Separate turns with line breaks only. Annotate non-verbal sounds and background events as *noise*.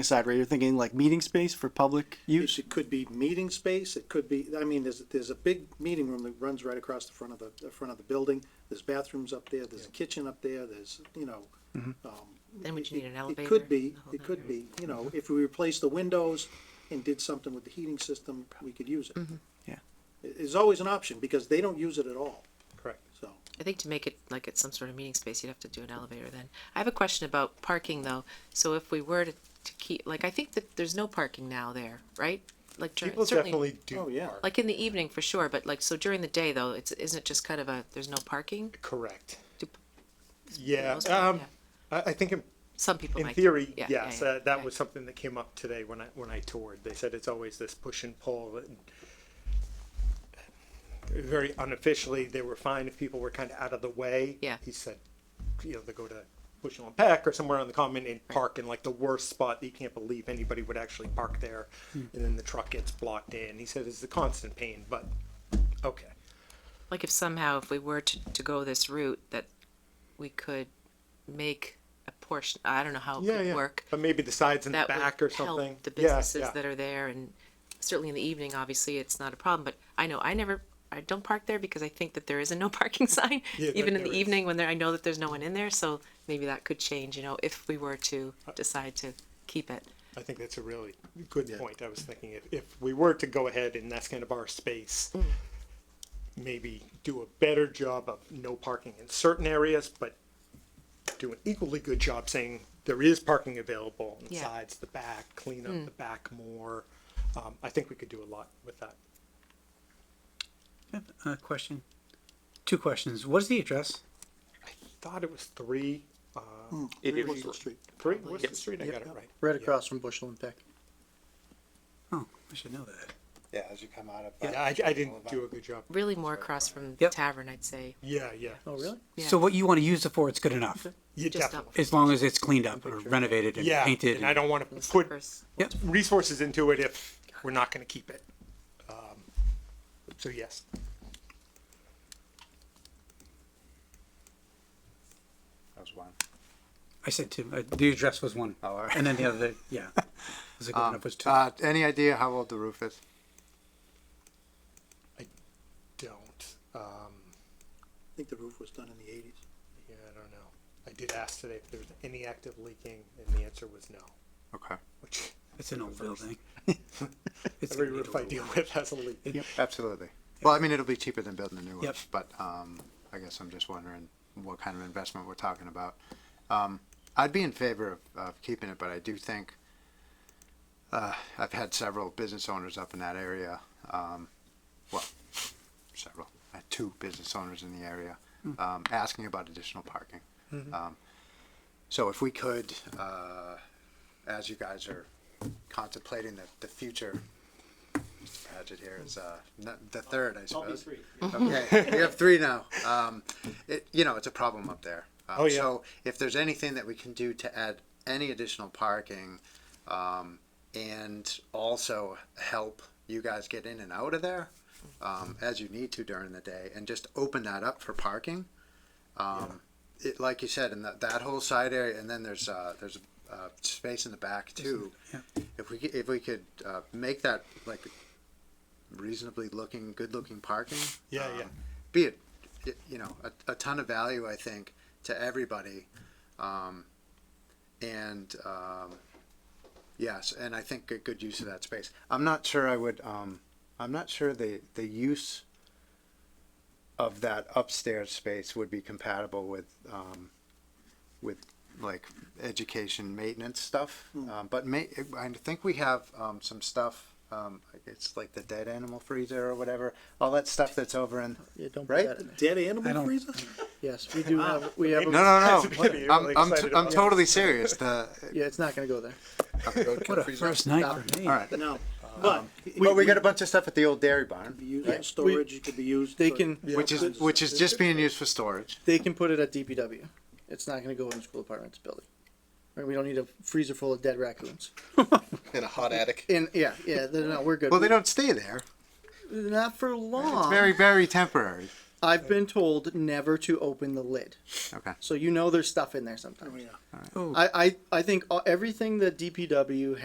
side, right? You're thinking like meeting space for public use?
It it could be meeting space, it could be, I mean, there's, there's a big meeting room that runs right across the front of the, the front of the building. There's bathrooms up there, there's a kitchen up there, there's, you know,
Mm-hmm.
um,
Then would you need an elevator?
it could be,
the whole
it
nine
could
yards?
be, you know, if we replace the windows and did something with the heating system, we could use it.
Mm-hmm.
Yeah.
It- It's always an option, because they don't use it at all,
Correct.
so.
I think to make it like it's some sort of meeting space, you'd have to do an elevator then. I have a question about parking though. So if we were to, to keep, like, I think that there's no parking now there, right? Like during,
People
certainly,
definitely do.
Oh, yeah.
park.
like in the evening for sure, but like, so during the day though, it's, isn't it just kind of a, there's no parking?
Correct.
Do-
Yeah.
most people-
Um,
yeah.
I, I think in,
Some people
in
might. do.
theory,
Yeah, yeah,
yes,
yeah.
uh, that
Right.
was something that came up today when I when I toured. They said it's always this push and pull. And very unofficially, they were fine if people were kind of out of the way.
Yeah.
He said, you know, they go to Bushnell Peck or somewhere on the common and park in like the worst spot that you can't believe anybody would actually park there, and then the truck gets blocked in. He said it's the constant pain, but okay.
Like if somehow, if we were to, to go this route, that we could make a portion, I don't know how it
yeah,
could
yeah.
work.
But maybe the sides and the
that
back or
would
something.
help the
Yeah,
businesses
yeah.
that are there and certainly in the evening obviously it's not a problem but i know i never i don't park there because i think that there is a no *laughs* parking sign
*laughs* Yeah, there-
even in the
there is.
evening when there i know that there's no one in there so maybe that could change you know if we were to
Uh,
decide to keep it
I think that's a really good point. I was thinking if, if we were to go ahead and that's kind of our space,
Hmm.
maybe do a better job of no parking in certain areas, but do an equally good job saying there is parking available on the
Yeah. Hmm.
sides, the back, clean up the back more. Um, I think we could do a lot with that.
I have A Uh, question. Two questions. What is the address?
I thought it was three. Uh,
It is
Worcester
three.
Street.
three? What's the street? I
Yep,
got it
yep.
right.
Right
Yeah.
across from Bushel and Peck.
Oh, I should know that.
Yeah, as you come out of.
Yeah, I, I didn't do a good job.
really more across from the
Yep.
tavern i'd say
Yeah, yeah.
Oh, really?
Yeah.
So what you want to use it for, it's good enough,
Yeah,
Just up.
definitely.
as long as it's cleaned up or renovated and
yeah,
painted.
and I don't want
It's
to
the
put
first-
Yep.
resources into it if we're not going to keep it. Um, so yes,
That was one.
I said two. Uh, the address was one,
Oh, all right.
and then the other, yeah,
*laughs*
was it good enough? Was two.
Uh, any idea how old the roof is?
don't. Um,
I think the roof was done in the eighties.
yeah, I don't know. I did ask today if there was any active leaking, and the answer was no.
Okay.
Which
it's an old
*laughs*
building. it's
every
gonna need
roof
a
I deal with has a leak.
Absolutely. Well, I mean, it'll be cheaper than building a new
Yep.
roof, but, um, I guess I'm just wondering what kind of investment we're talking about. Um, I'd be in favor of, of keeping it, but I do think, uh, I've had several business owners up in that area, um, well, several, uh, two business owners in the area,
Hmm.
um, asking about additional parking.
Mm-hmm.
Um, So if we could, uh, as you guys are contemplating the, the future, Mr. Paget here is, uh, not- the third, I suppose. *laughs* Okay, we have three now. Um, it, you know, it's a problem up there. Um,
Oh, yeah.
So if there's anything that we can do to add any additional parking, um, and also help you guys get in and out of there, um, as you need to during the day, and just open that up for parking. Um, it, like you said, in that, that whole side area, and then there's, uh, there's, uh, space in the back too. If we, c- if we could, uh, make that like reasonably looking, good looking parking.
Yeah,
um,
yeah.
Be it, y- you know, a, a ton of value, I think, to everybody. Um, and, um, yes, and I think a good use of that space. I'm not sure I would, um, I'm not sure the, the use of that upstairs space would be compatible with, um, with like education maintenance stuff. Um, but ma- I think we have, um, some stuff, um, it's like the dead animal freezer or whatever, all that stuff that's over in,
Yeah, don't put
right?
that in there.
Dead
I
animal
don't-
freezer?
*laughs* Yes, we do have, we have,
No,
a-
no,
*laughs* That's
no.
gonna be really
I'm, I'm,
excited
t- I'm
about.
totally serious. The,
yeah, it's not gonna go there.
What a first night for me.
all right.
No, but.
But we got a bunch of stuff at the old dairy
Be
barn,
used for storage, it could be used.
They
for-
can,
which is, which is just being used for storage.
they can put it at DPW. It's not gonna go in the school department's building. Right, we don't need a freezer full of dead raccoons.
In a hot attic.
And, yeah, yeah, no, no, we're good.
Well, they don't stay there.
Not for long.
Very, very temporary.
I've been told never to open the lid.
Okay.
So you know there's stuff in there sometimes.
Oh, yeah.
Oh,
I, I, I think all- everything uh, that DPW